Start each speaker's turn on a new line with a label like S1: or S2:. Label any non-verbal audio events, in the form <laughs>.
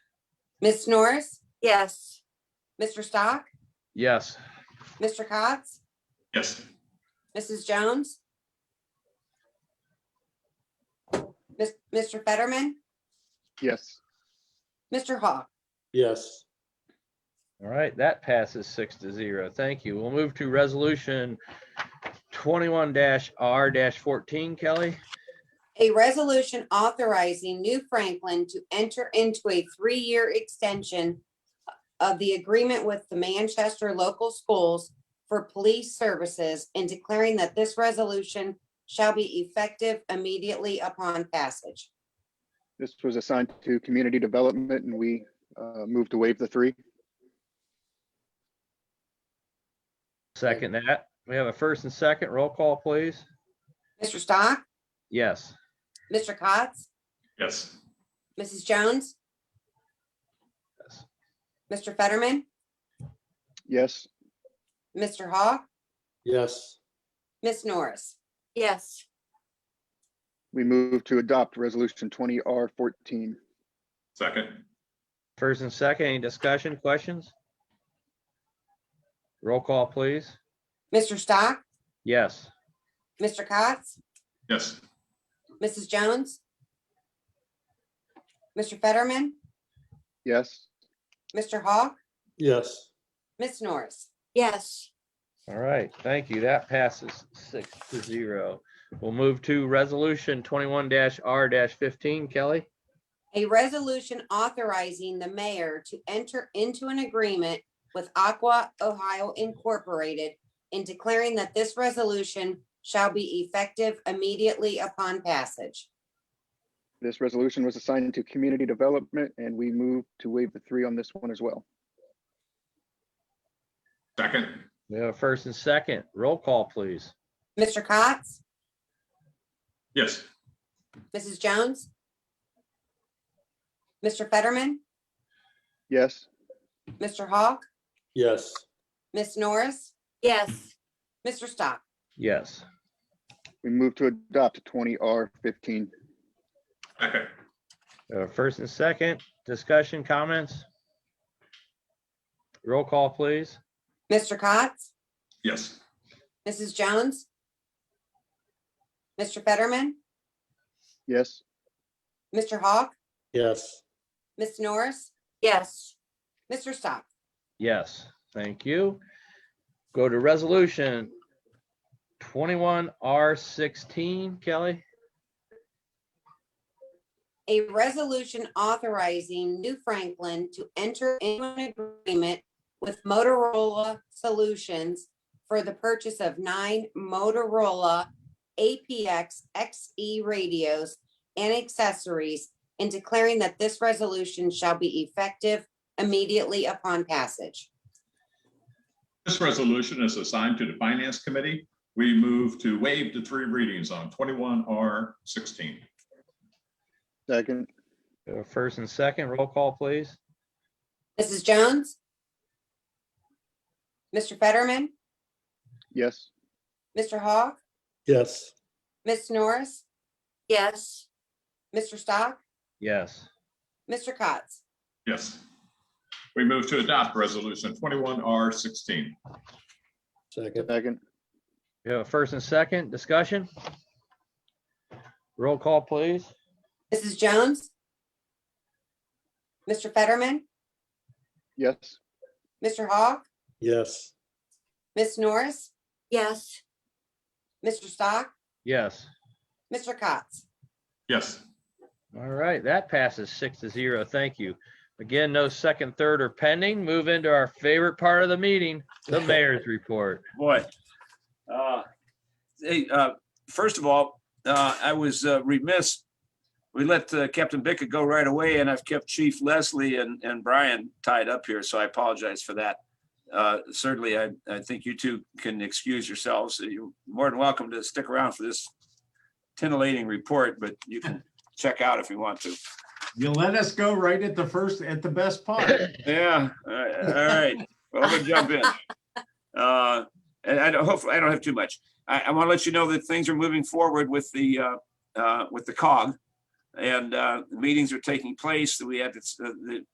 S1: Ms. Norris,
S2: Yes.
S1: Mr. Stock,
S3: Yes.
S1: Mr. Cotts,
S4: Yes.
S1: Mrs. Jones? Mis- Mr. Fetterman,
S5: Yes.
S1: Mr. Hawk,
S6: yes,
S3: All right, that passes six to zero. Thank you. We'll move to resolution twenty-one R fourteen, Kelly.
S1: a resolution authorizing New Franklin to enter into a three-year extension of the agreement with the Manchester Local Schools for Police Services and declaring that this resolution shall be effective immediately upon passage.
S5: This was assigned to community development and we uh, moved to waive the three.
S3: Second that. We have a first and second. Roll call, please.
S1: Mr. Stock,
S3: Yes.
S1: Mr. Cotts,
S4: Yes.
S1: Mrs. Jones?
S3: Yes.
S1: Mr. Fetterman,
S5: Yes.
S1: Mr. Hawk,
S6: yes,
S1: Ms. Norris?
S2: Yes.
S5: We move to adopt resolution twenty R fourteen.
S4: Second.
S3: First and second, any discussion, questions? Roll call, please.
S1: Mr. Stock,
S3: Yes.
S1: Mr. Cotts,
S4: Yes.
S1: Mrs. Jones? Mr. Fetterman,
S5: Yes.
S1: Mr. Hawk,
S6: yes,
S1: Ms. Norris?
S2: Yes.
S3: All right, thank you. That passes six to zero. We'll move to resolution twenty-one R fifteen, Kelly.
S1: A resolution authorizing the mayor to enter into an agreement with Aqua Ohio Incorporated and declaring that this resolution shall be effective immediately upon passage.
S5: This resolution was assigned to community development and we move to waive the three on this one as well.
S4: Second.
S3: We have a first and second. Roll call, please.
S1: Mr. Cotts,
S4: Yes.
S1: Mrs. Jones? Mr. Fetterman,
S5: Yes.
S1: Mr. Hawk,
S6: yes,
S1: Ms. Norris,
S2: Yes.
S1: Mr. Stock,
S3: Yes.
S5: We move to adopt twenty R fifteen.
S4: Second.
S3: Uh, First and second, discussion, comments? Roll call, please.
S1: Mr. Cotts,
S4: Yes.
S1: Mrs. Jones? Mr. Fetterman,
S5: Yes.
S1: Mr. Hawk,
S6: yes,
S1: Ms. Norris,
S2: Yes.
S1: Mr. Stock,
S3: Yes, thank you. Go to resolution twenty-one R sixteen, Kelly.
S1: a resolution authorizing New Franklin to enter into an agreement with Motorola Solutions for the purchase of nine Motorola APX XE E radios and accessories and declaring that this resolution shall be effective immediately upon passage.
S4: This resolution is assigned to the Finance Committee. We move to waive the three readings on 21R16.
S5: Second.
S3: Uh, First and second, roll call, please.
S1: Mrs. Jones? Mr. Fetterman,
S5: Yes.
S1: Mr. Hawk,
S6: yes,
S1: Ms. Norris,
S2: Yes.
S1: Mr. Stock,
S3: Yes.
S1: Mr. Cotts?
S4: Yes. We move to adopt Resolution 21R16.
S6: second,
S5: Second.
S3: We have a Uh, first and second, discussion? Roll call, please.
S1: Mrs. Jones? Mr. Fetterman,
S5: Yes.
S1: Mr. Hawk,
S6: yes,
S1: Ms. Norris,
S2: Yes.
S1: Mr. Stock,
S3: Yes.
S1: Mr. Cotts.
S4: Yes.
S3: All right, that passes six to zero. Thank you. Again, no second, third, or pending. Move into our favorite part of the meeting, the mayor's report.
S7: boy. Uh, Hey, uh, first of all, uh, I was uh, remiss. We let uh, Captain Bickett go right away and I've kept Chief Leslie and, and Brian tied up here, so I apologize for that. Uh, Certainly, I, I think you two can excuse yourselves. You're more than welcome to stick around for this titillating report, but you can check out if you want to.
S8: You let us go right at the first, at the best part.
S7: <laughs> Yeah, all right, all right. Well, we'll jump in. Uh, And I don't, hopefully, I don't have too much. I, I want to let you know that things are moving forward with the, uh, uh, with the cog. And uh, meetings are taking place. We had, this- uh, the